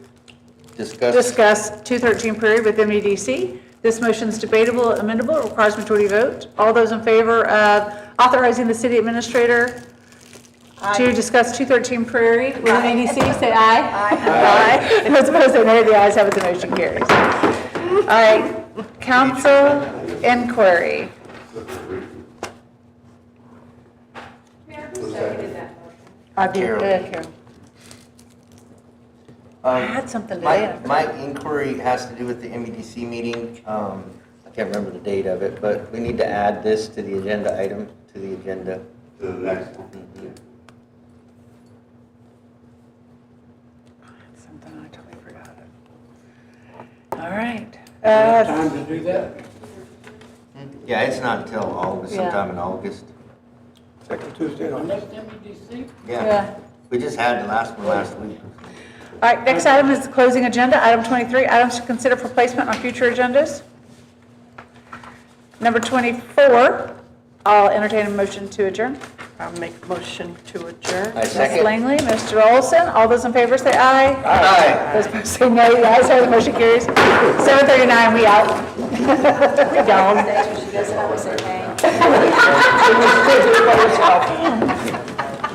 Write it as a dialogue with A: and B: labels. A: Discuss,
B: discuss 213 Prairie with MEDC. This motion is debatable, amendable, requires majority vote. All those in favor of authorizing the city administrator to discuss 213 Prairie with MEDC, say aye. Aye. Aye. Those opposed, say nay. The ayes have it, the motion carries. All right, council inquiry. I did, uh, Carol. I had something to
A: um, my,
B: add.
A: my inquiry has to do with the MEDC meeting. Um, I can't remember the date of it, but we need to add this to the agenda item, to the agenda.
C: to the next one.
B: Something I totally forgot. All right. Uh,
D: Time to do that?
A: Yeah, it's not until August,
B: Yeah.
A: sometime in August.
D: Second Tuesday
C: The
D: on
C: next MEDC?
A: Yeah,
B: Yeah.
A: we just had the last one last week.
B: All right, next item is the closing agenda, item 23, items to consider for placement on future agendas. Number 24, I'll entertain a motion to adjourn.
E: I'll make a motion to adjourn.
A: I
B: Ms.
A: second.
B: Langley, Mr. Olson, all those in favor say aye.
A: Aye.
B: Those opposed say nay, the ayes have it, motion carries. 7:39, we out. We down.
F: That's what she does, always say, hey.